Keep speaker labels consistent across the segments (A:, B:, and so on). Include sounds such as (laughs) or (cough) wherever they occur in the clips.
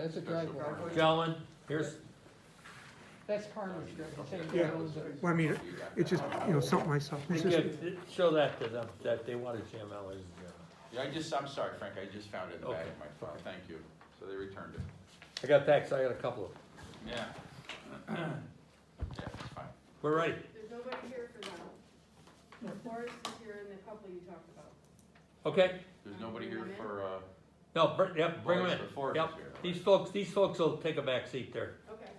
A: That's a driveway.
B: Gentlemen, here's,
A: That's Harmon's driveway, same
C: Yeah.
A: one as it-
C: Well, I mean, it's just, you know, something like something. It's just,
B: again, show that to them, that they want to jam out, ladies and gentlemen.
D: Yeah, I just, I'm sorry, Frank, I just found it in the back of my phone,
B: Okay.
D: thank you. So they returned it.
B: I got thanks, I got a couple of them.
D: Yeah. Yeah, it's fine.
B: We're ready.
E: There's nobody here for that. The forest is here and the couple you talked about.
B: Okay?
D: There's nobody here for, uh.
B: No, br- yep, bring them
D: Boris
B: in.
D: the Forest
B: Yep.
D: is here.
B: These folks, these folks will take a back seat there.
E: Okay.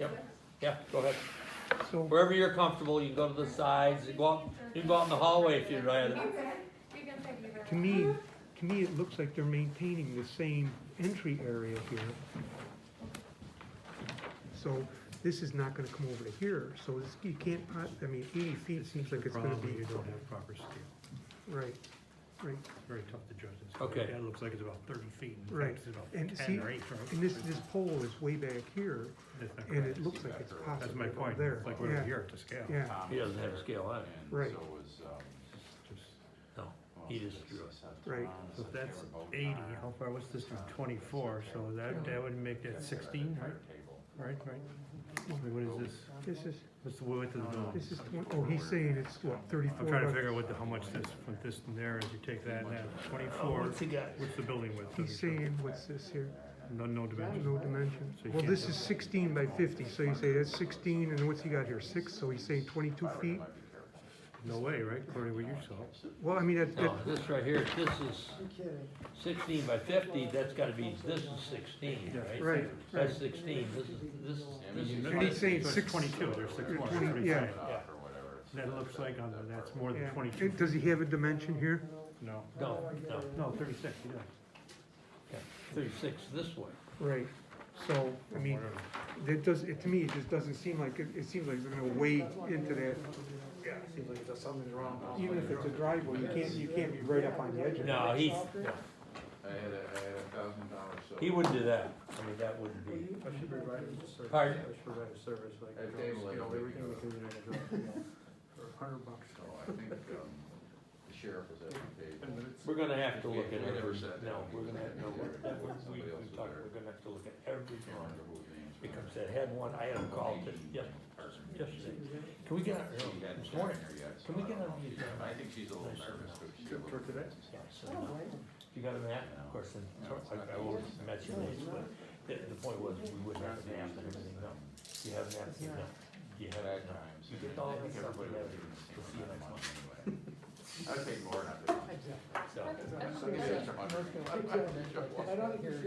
B: Yep. Yeah, go ahead.
C: so,
B: Wherever you're comfortable, you can go to the sides, you go out, you can go out in the hallway if you'd rather.
C: to me, to me, it looks like they're maintaining the same entry area here. So this is not gonna come over to here, so this, you can't, po- I mean, eighty feet seems like it's gonna
F: Probably
C: be,
F: you don't have proper scale.
C: right, right.
F: It's very tough to judge this.
B: Okay.
F: That looks like it's about thirty feet. in fact,
C: Right.
F: It's about
C: And
F: ten
C: see,
F: or eight. from-
C: And this, this pole is way back here,
F: That's not
C: and
F: correct.
C: it looks like it's
F: That's
C: possibly
F: my
C: over
F: point,
C: there.
F: it's like we're
C: Yeah,
F: here at the scale.
C: Yeah,
D: Tom
B: He doesn't
D: was
B: have
D: there,
B: scale on it.
D: and
C: Right.
D: So was, um.
F: Just-
B: No,
D: who else
B: he
D: was
B: just
D: there?
B: drew it.
D: Seth
C: Right.
D: Brown,
F: So
D: Seth
F: that's
D: Taylor, Bo
F: eighty,
D: Nye.
F: how far, what's this from twenty-four, so that, that would make that sixteen, right,
D: Table.
F: right, right? Wait, What is
C: this
F: this,
C: is,
F: what's the width of the building?
C: this is, twen- oh, he's saying it's what, thirty-four?
F: I'm trying to
C: by-
F: figure out what the, how much this, from this and there, as you take that and that, twenty-four, Oh, what's the building width?
C: He's saying, what's this here?
F: No, no dimension.
C: No dimension.
F: So you
C: Well,
F: can't
C: this
F: do
C: is
F: it.
C: sixteen by fifty, so you say that's sixteen, and what's he got here, six, so he's saying twenty-two
D: Might be
C: feet?
D: careful.
F: No way, right, according to what you saw.
C: Well, I mean, that, that,
B: No,
F: Oh,
B: this right here, this is sixteen by fifty, that's gotta be, this is sixteen, right?
C: right,
B: That's
C: right.
B: sixteen, this is, this is,
D: Yeah, I
B: this
D: mean, you
B: is.
D: know,
C: And he's saying
F: So it's
C: six-
F: Twenty-two, there's six
D: You're
F: more.
C: twenty-
F: Three
C: yeah.
F: feet.
D: Cut off or whatever. It's
F: That
D: not
F: looks
D: that-
F: like on,
D: that
F: the- that's
D: far.
F: more than
C: yeah.
F: twenty-two.
C: And Does he have a dimension here?
F: No,
B: No, no,
F: no, thirty-six, he does.
B: thirty-six this way.
C: Right, so, I mean,
F: Whatever.
C: that does, it, to me, it just doesn't seem like, it, it seems like it's gonna wade into that. Yeah, seems like there's something wrong. Even if it's a driveway, you can't, you can't be right up on the edge of it.
B: No, he's,
D: I had a, I had a thousand dollars, so.
B: he wouldn't do that, I mean, that wouldn't be,
G: I should provide a service.
B: Pardon?
G: I should provide a service like.
D: At table,
G: you know,
D: it'll
G: we
D: be,
G: can- we
D: uh,
G: can do that as well, you know, For a hundred bucks.
D: So I think, um, the sheriff was at the table.
G: Ten minutes.
B: we're gonna have to look at
D: We
B: every,
D: never said that.
B: no, we're gonna have, no, we're, that was- we, we talked, we're gonna have to look at every
D: I don't
B: drawing.
D: remember who his names were.
B: Because that had one, I had him called it, yes, yesterday. Can we get, on-
D: She hadn't been
B: this
D: in
B: morning?
D: there yet, so
B: Can we
D: I don't
B: get
D: know if
B: on the- uh,
D: she's- I think she's a little nervous, but she's a little.
G: For today?
B: Yeah, so, You got a map, of course, and, so I, I will match your names, but the, the point was, we wouldn't have a map and everything, no. You have a map, you know, you have,
D: Bad
B: no.
D: times.
B: You get all
D: I
B: that
D: think
B: stuff
D: everybody was
B: together.
D: doing the same
B: We'll see you
D: amount of
B: next
D: money anyway. (laughs) I paid more than I did.
B: So,
D: So give me extra money. I- I did just
A: I
D: one.
A: don't think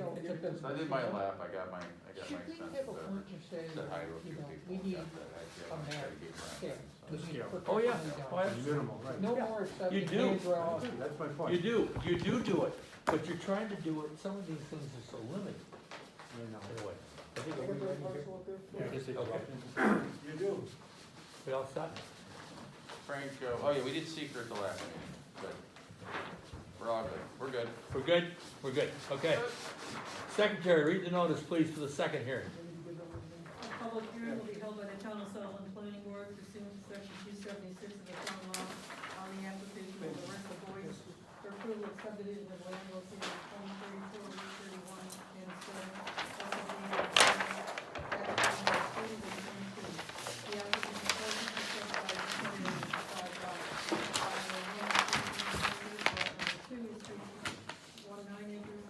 A: so.
D: So I did my lap, I got my, I got my
A: Should we
D: sense
A: have a
D: of,
A: point of saying,
D: said hi to a
A: you
D: few
A: know,
D: people.
A: we
D: got
A: need
D: that idea. I'm
A: a map
D: trying to get around
A: scale?
D: it, so.
A: We need to put
B: Oh, yeah.
A: something down.
B: Oh, yeah.
F: Minimal, right.
A: No more stuff.
B: You
A: you
B: do.
A: can't draw.
F: That's my
B: You
F: point.
B: do, you do do it, but you're trying to do it, some of these things are so limited, anyway. I think we- Okay.
F: You do.
B: We all set?
D: Frank, uh, oh yeah, we did secret the last meeting, but we're all good, we're good.
B: We're good? We're good, okay. Secretary, read the notice, please, for the second hearing.
H: A public hearing will be held by the Town of Sullivan Planning Board pursuant to section two seventy-six of the town law on the application of Larissa Boyce for approval of subdivision of land located at twenty thirty-four, Route thirty-one, and so. The applicant is present, except by the attorney on the side lot. Lot number Two is three, one nine acres,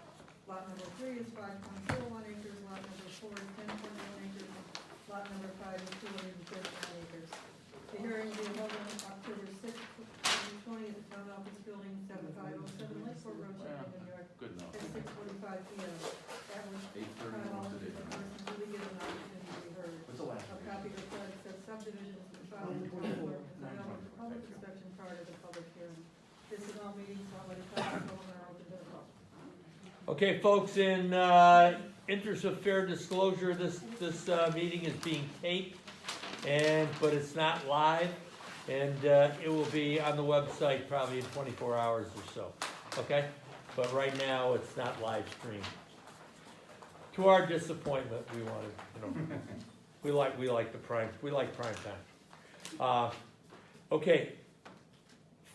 H: lot number three is five point four one acres, lot number four is ten point one acres, lot number five is two hundred and thirty-nine acres. The hearing will be held on October sixth, twenty twenty, at the town office building, seven five oh seven Lakeport Road, Chapel, New York,
D: Good enough.
H: at six forty-five P M. At which
D: Eight
H: time all
D: thirty-one today.
H: interested persons will be given an opportunity to be heard.
D: What's the last
H: A
D: meeting?
H: copy of the plan of said subdivision has been filed with the town clerk and sent out for public inspection prior to the public hearing. This is all meetings, all the town, all our open to the public.
B: Okay, folks, in, uh, interest of fair disclosure, this, this, uh, meeting is being taped, and, but it's not live, and, uh, it will be on the website probably in twenty-four hours or so, okay? But right now, it's not live streamed. To our disappointment, we wanted, you know, (laughs) we like, we like the prime, we like prime time. Uh, okay,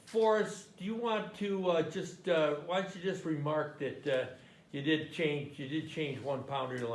B: Forrest, do you want to, uh, just, uh, why don't you just remark that, uh, you did change, you did change one pounder to